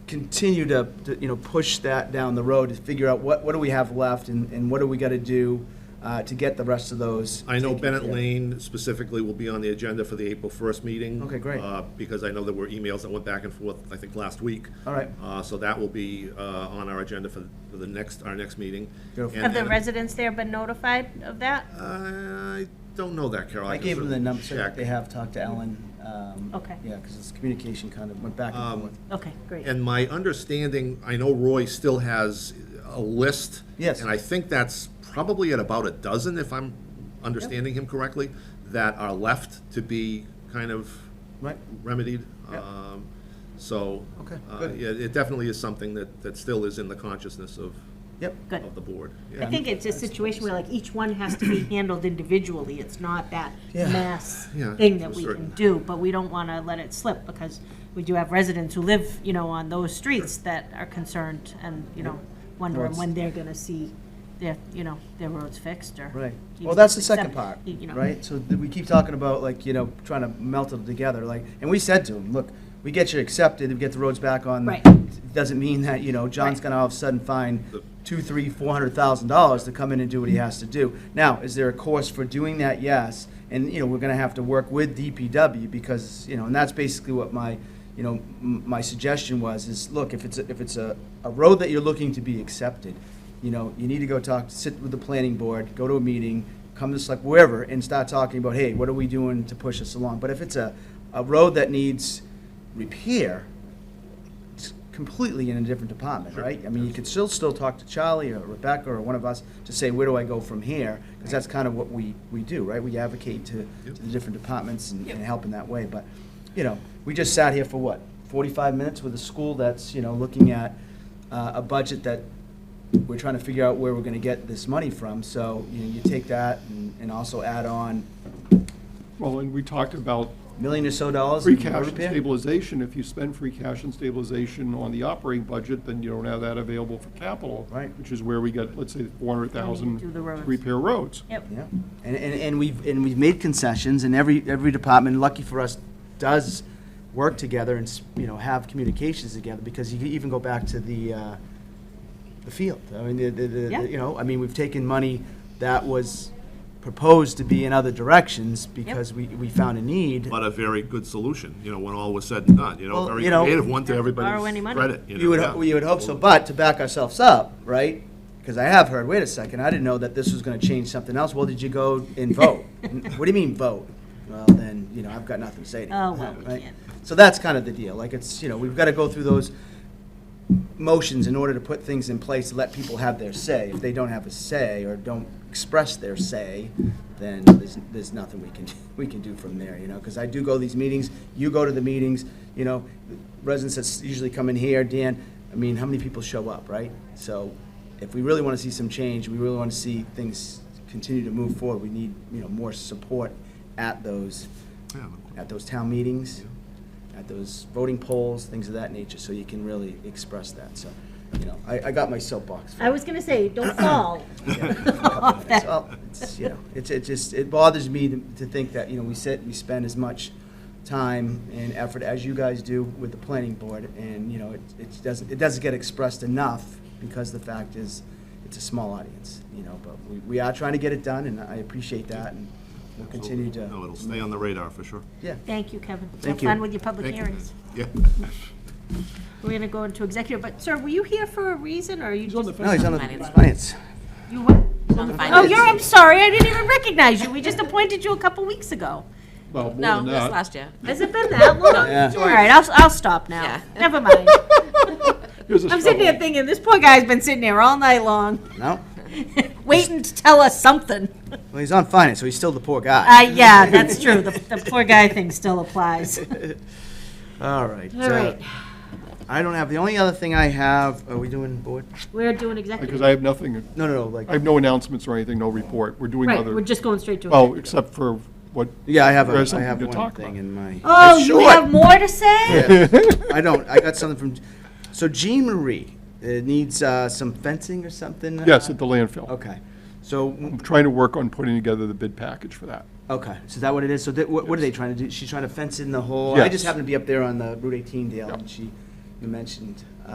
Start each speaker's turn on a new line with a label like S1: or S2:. S1: continue to, to, you know, push that down the road to figure out what, what do we have left and, and what do we gotta do uh, to get the rest of those.
S2: I know
S1: taken
S2: Bennett
S1: care of.
S2: Lane specifically will be on the agenda for the April 1st meeting.
S1: Okay, great.
S2: uh, Because I know there were emails that went back and forth, I think, last week.
S1: All right.
S2: Uh, So that will be uh, on our agenda for for the next, our next meeting.
S1: Beautiful.
S2: And
S3: Have the
S2: then-
S3: residents there been notified of that?
S2: I don't know that, Carol.
S1: I
S2: can
S1: gave them the
S2: certainly
S1: number, so
S2: check.
S1: they have talked to Ellen. um,
S3: Okay.
S1: Yeah, because this communication kind of went back
S2: Um,
S1: and forth.
S3: Okay, great.
S2: And my understanding, I know Roy still has a list.
S1: Yes.
S2: And I think that's probably at about a dozen, if I'm understanding him correctly, that are left to be kind of
S1: Right.
S2: remedied.
S1: Yep.
S2: Um, So.
S1: Okay,
S2: uh,
S1: good.
S2: Yeah, it definitely is something that, that still is in the consciousness of,
S1: Yep.
S3: Good.
S2: of the board.
S3: I
S2: Yeah.
S3: think it's a situation where like each one has to be handled individually. It's not that mass
S2: Yeah, to
S3: thing
S2: a
S3: that we
S2: certain-
S3: can do, but we don't want to let it slip because we do have residents who live, you know, on those streets that are concerned and, you know, wondering
S1: it's-
S3: when they're going to see their, you know, their roads fixed or.
S1: Right.
S3: even
S1: Well, that's the second
S3: accept-
S1: part,
S3: you know.
S1: right? So th- we keep talking about like, you know, trying to melt it together, like, and we said to him, look, we get you accepted, we get the roads back on.
S3: Right.
S1: It Doesn't mean that, you know, John's
S3: Right.
S1: gonna all of a sudden find two, three, four hundred thousand dollars to come in and do what he has to do. Now, is there a course for doing that? Yes. And, you know, we're gonna have to work with DPW because, you know, and that's basically what my, you know, m- my suggestion was, is look, if it's, a- if it's a, a road that you're looking to be accepted, you know, you need to go talk, sit with the planning board, go to a meeting, come to select wherever, and start talking about, hey, what are we doing to push us along? But if it's a, a road that needs repair, it's completely in a different department, right? I mean, you could still, still talk to Charlie or Rebecca or one of us to say, where do I go from here? Because that's kind of what we, we do, right? We advocate to, to
S2: Yep.
S1: the different departments and, and help in that way, but, you know, we just sat here for what, forty-five minutes with a school that's, you know, looking at, uh, a budget that we're trying to figure out where we're gonna get this money from, so, you know, you take that and, and also add on
S4: Well, and we talked about
S1: million or so dollars
S4: free
S1: in
S4: cash
S1: road
S4: and
S1: repair.
S4: stabilization. If you spend free cash and stabilization on the operating budget, then you don't have that available for capital.
S1: Right.
S4: Which is where we get, let's say, four hundred thousand
S3: Do the roads.
S4: to repair roads.
S3: Yep.
S1: Yeah, and, and, and we've, and we've made concessions, and every, every department, lucky for us, does work together and, s- you know, have communications together, because you can even go back to the, uh, the field. I mean, the, the, the,
S3: Yeah.
S1: you know, I mean, we've taken money that was proposed to be in other directions because we, we found a need.
S2: But a very good solution, you know, when all was said and done, you know,
S1: Well,
S2: very
S1: you know-
S2: creative one to
S3: Not to borrow
S2: everybody's
S3: any money.
S2: credit. know,
S1: You would,
S2: yeah.
S1: ho- you would hope so, but to back ourselves up, right? Because I have heard, wait a second, I didn't know that this was gonna change something else. Well, did you go and vote? N- What do you mean, vote? Well, then, you know, I've got nothing to say to you.
S3: Oh, well, we
S1: right?
S3: can't.
S1: So that's kind of the deal. Like, it's, you know, we've gotta go through those motions in order to put things in place to let people have their say. If they don't have a say or don't express their say, then there's, there's nothing we can, we can do from there, you know? Because I do go to these meetings, you go to the meetings, you know, residents that usually come in here, Dan, I mean, how many people show up, right? So if we really want to see some change, we really want to see things continue to move forward, we need, you know, more support at those,
S2: Yeah.
S1: at those town meetings, at those voting polls, things of that nature, so you can really express that, so, you know, I, I got my soapbox.
S3: I was going to say, don't fall. off that.
S1: It's all- it's, you know, it's, it just, it bothers me to to think that, you know, we sit, we spend as much time and effort as you guys do with the planning board, and, you know, it, it doesn't, it doesn't get expressed enough, because the fact is, it's a small audience, you know, but we, we are trying to get it done, and I appreciate that, and we'll continue to.
S2: No, it'll stay on the radar for sure.
S1: Yeah.
S3: Thank you, Kevin.
S1: Thank you.
S3: Have fun with your public
S2: Thank you.
S3: hearings.
S2: Yeah.
S3: We're going to go into executive, but sir, were you here for a reason or are you just?
S1: No, he's on the
S5: Finance.
S1: finance.
S3: You what? Oh,
S5: Oh,
S3: you're, I'm sorry, I didn't even recognize you. We just appointed you a couple weeks ago.
S4: Well, more
S5: No,
S4: than
S5: it was
S4: that,
S5: last year.
S3: Has it been that long?
S1: Yeah.
S3: All right, I'll, I'll stop now.
S5: Yeah.
S3: Never mind.
S4: here's a
S3: I'm sitting here
S4: struggle.
S3: thinking, this poor guy's been sitting here all night long,
S1: No?
S3: waiting to tell us something.
S1: Well, he's on finance, so he's still the poor guy.
S3: Uh, yeah, that's true. The, the poor guy thing still applies.
S1: All right. uh,
S3: All right,
S1: I don't have, the only other thing I have, are we doing board?
S3: we're doing
S4: Because
S3: executive.
S4: I have nothing,
S1: No, no, no,
S4: I
S1: like,
S4: have no announcements or anything, no report. We're doing
S3: Right, we're
S4: other,
S3: just going straight to
S4: well,
S3: executive.
S4: except for what,
S1: yeah, I have,
S4: There
S1: a.
S4: is
S1: I have
S4: something to
S1: one
S4: talk
S1: thing
S4: about.
S1: in my,
S3: Oh, you
S1: Short.
S3: have more to say?
S1: I don't, I got something from, so Jean Marie, it needs uh, some fencing or something?
S4: yes,
S1: uh,
S4: at the landfill.
S1: Okay, so,
S4: I'm trying to work on putting together the bid package for that.
S1: okay, so is that what it is? So that, what what are they trying to do? She's trying to fence in the whole, I just
S4: Yes.
S1: happened to be up there on the Route 18 deal, and she, you mentioned, uh,